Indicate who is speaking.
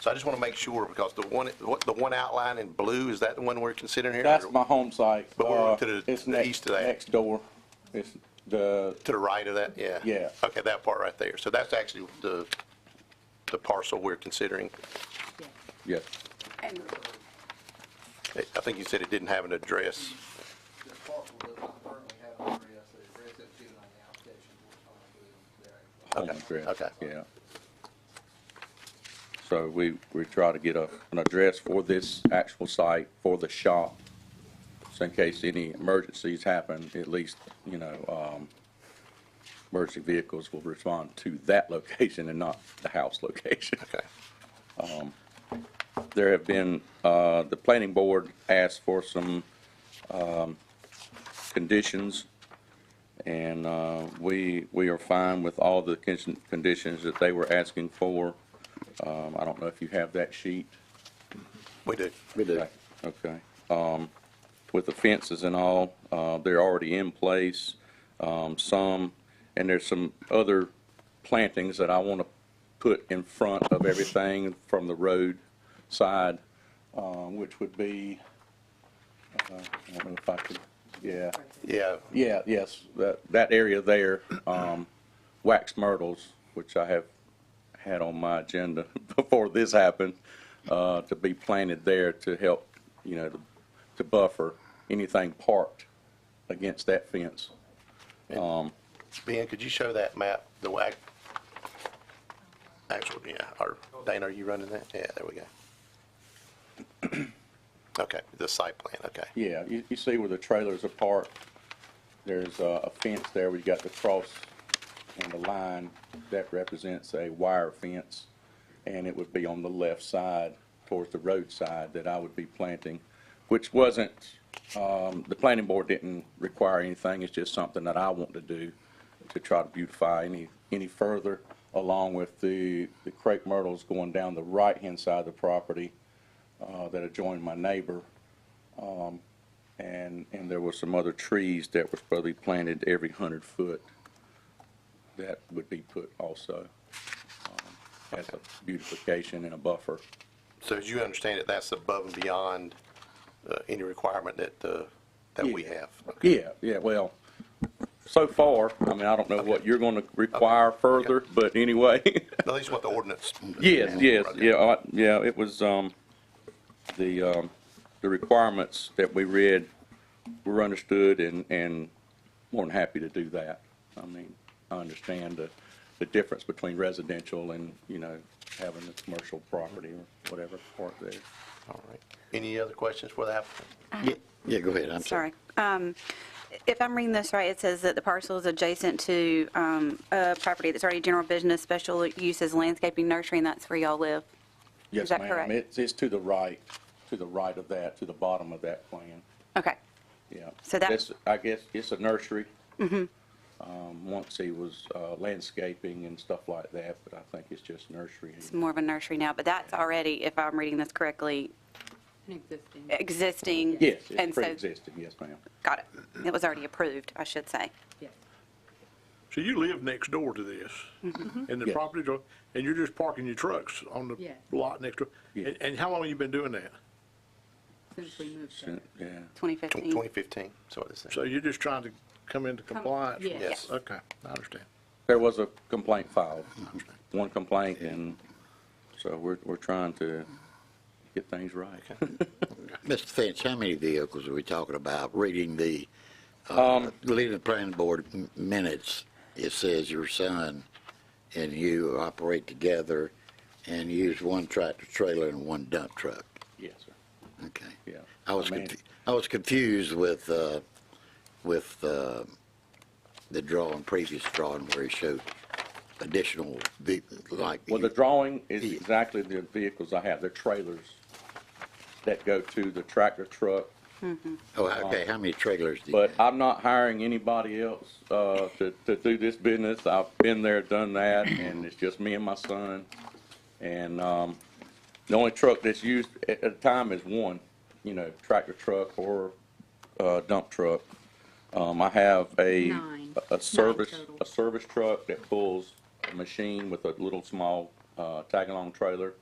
Speaker 1: So I just want to make sure, because the one, what, the one outline in blue, is that the one we're considering here?
Speaker 2: That's my home site.
Speaker 1: But we're
Speaker 2: Uh,
Speaker 1: to the-
Speaker 2: it's
Speaker 1: the
Speaker 2: next-
Speaker 1: east of that.
Speaker 2: Next door. It's the,
Speaker 1: To the right of that, yeah?
Speaker 2: Yeah.
Speaker 1: Okay, that part right there. So that's actually the, the parcel we're considering.
Speaker 2: yes,
Speaker 3: And
Speaker 1: I I think you said it didn't have an address.
Speaker 4: The parcel does not currently have an address, the address that's given on the application will come to their.
Speaker 2: home address.
Speaker 1: okay.
Speaker 2: Yeah. So we, we try to get a, an address for this actual site, for the shop, so in case any emergencies happen, at least, you know, um, emergency vehicles will respond to that location and not the house location.
Speaker 1: Okay.
Speaker 2: there have been, uh, the planning board asked for some, um, conditions, and, uh, we, we are fine with all the con- conditions that they were asking for. Um, I don't know if you have that sheet.
Speaker 1: We do.
Speaker 5: We do.
Speaker 2: Okay. Um, with the fences and all, uh, they're already in place, um, some, and there's some other plantings that I want to put in front of everything from the road side, um, which would be, uh, I don't know if I could, yeah.
Speaker 1: Yeah,
Speaker 2: Yeah, yes, that, that area there, um, wax myrtles, which I have had on my agenda before this happened, uh, to be planted there to help, you know, to- to buffer anything parked against that fence.
Speaker 1: Ben, could you show that map, the way, actual, yeah, or Dana, are you running that? Yeah, there we go. Okay, the site plan, okay.
Speaker 2: Yeah, you, you see where the trailers are parked, there's uh, a fence there, we got the cross and the line, that represents a wire fence, and it would be on the left side, towards the roadside, that I would be planting, which wasn't, um, the planning board didn't require anything, it's just something that I want to do to try to beautify any, any further, along with the, the crepe myrtles going down the right-hand side of the property uh, that adjoin my neighbor. And, and there were some other trees that were supposed to be planted every hundred foot that would be put also um, as a beautification and a buffer.
Speaker 1: So as you understand it, that's above and beyond uh, any requirement that, uh, that we
Speaker 2: Yeah.
Speaker 1: have? Okay.
Speaker 2: Yeah, yeah, well, so far, I mean, I don't know what you're gonna require further, but anyway.
Speaker 1: At least what the ordinance.
Speaker 2: Yes, yes,
Speaker 1: Okay.
Speaker 2: yeah, I- yeah, it was, um, the, um, the requirements that we read were understood and, and more than happy to do that. I mean, I understand the, the difference between residential and, you know, having a commercial property or whatever part there.
Speaker 1: All right. Any other questions for the applicant?
Speaker 5: Yeah, Yeah, go ahead, I'm sorry.
Speaker 3: Sorry. Um, If I'm reading this right, it says that the parcel is adjacent to um, a property that's already general business, special uses landscaping, nursery, and that's where y'all live.
Speaker 2: Yes,
Speaker 3: that
Speaker 2: ma'am.
Speaker 3: correct?
Speaker 2: It's, it's to the right, to the right of that, to the bottom of that plan.
Speaker 3: Okay.
Speaker 2: Yeah.
Speaker 3: So that- Mm-hmm.
Speaker 2: That's- I guess it's a nursery. Um, once he was uh, landscaping and stuff like that, but I think it's just nursery.
Speaker 3: It's more of a nursery now, but that's already, if I'm reading this correctly,
Speaker 6: An existing.
Speaker 3: Eh, existing.
Speaker 2: Yes,
Speaker 3: And
Speaker 2: it's
Speaker 3: so,
Speaker 2: pre-existing, yes, ma'am.
Speaker 3: got it. It was already approved, I should say.
Speaker 6: Yes.
Speaker 7: So you live next door to this, and the
Speaker 2: Yes.
Speaker 7: property, door- and you're just parking your trucks on the
Speaker 6: Mm-hmm. Yes.
Speaker 7: lot next door?
Speaker 2: Yeah.
Speaker 7: And, and how long you been doing that?
Speaker 6: Since we moved
Speaker 2: So,
Speaker 6: there.
Speaker 2: Yeah.
Speaker 3: 2015.
Speaker 1: 2015, so what is
Speaker 7: So
Speaker 1: that?
Speaker 7: you're just trying to come into compliance? with-
Speaker 6: yes.
Speaker 1: Yes.
Speaker 7: Okay, I understand.
Speaker 2: There was a complaint filed, one complaint, and so we're, we're trying to get things right.
Speaker 5: Mr. Finch, how many vehicles are we talking about? Reading the,
Speaker 2: Um,
Speaker 5: uh, reading the planning board m- minutes, it says your son and you operate together and use one tractor trailer and one dump truck.
Speaker 2: Yes, sir,
Speaker 5: Okay.
Speaker 2: yeah.
Speaker 5: I was,
Speaker 2: I mean-
Speaker 5: confu- I was confused with, uh, with uh, the drawing, previous drawing where he showed additional, ve- like.
Speaker 2: Well, the drawing is
Speaker 5: Yeah.
Speaker 2: exactly the vehicles I have, they're trailers that go to the tractor truck,
Speaker 5: Oh, okay, how many trailers do you
Speaker 2: But
Speaker 5: have?
Speaker 2: I'm not hiring anybody else uh, to, to do this business. I've been there, done that, and it's just me and my son. And um, the only truck that's used at at the time is one, you know, tractor truck or uh, dump truck. Um, I have a,
Speaker 6: Nine.
Speaker 2: a service,
Speaker 6: Nine total.
Speaker 2: a service truck that pulls a machine with a little small uh, tag-along trailer.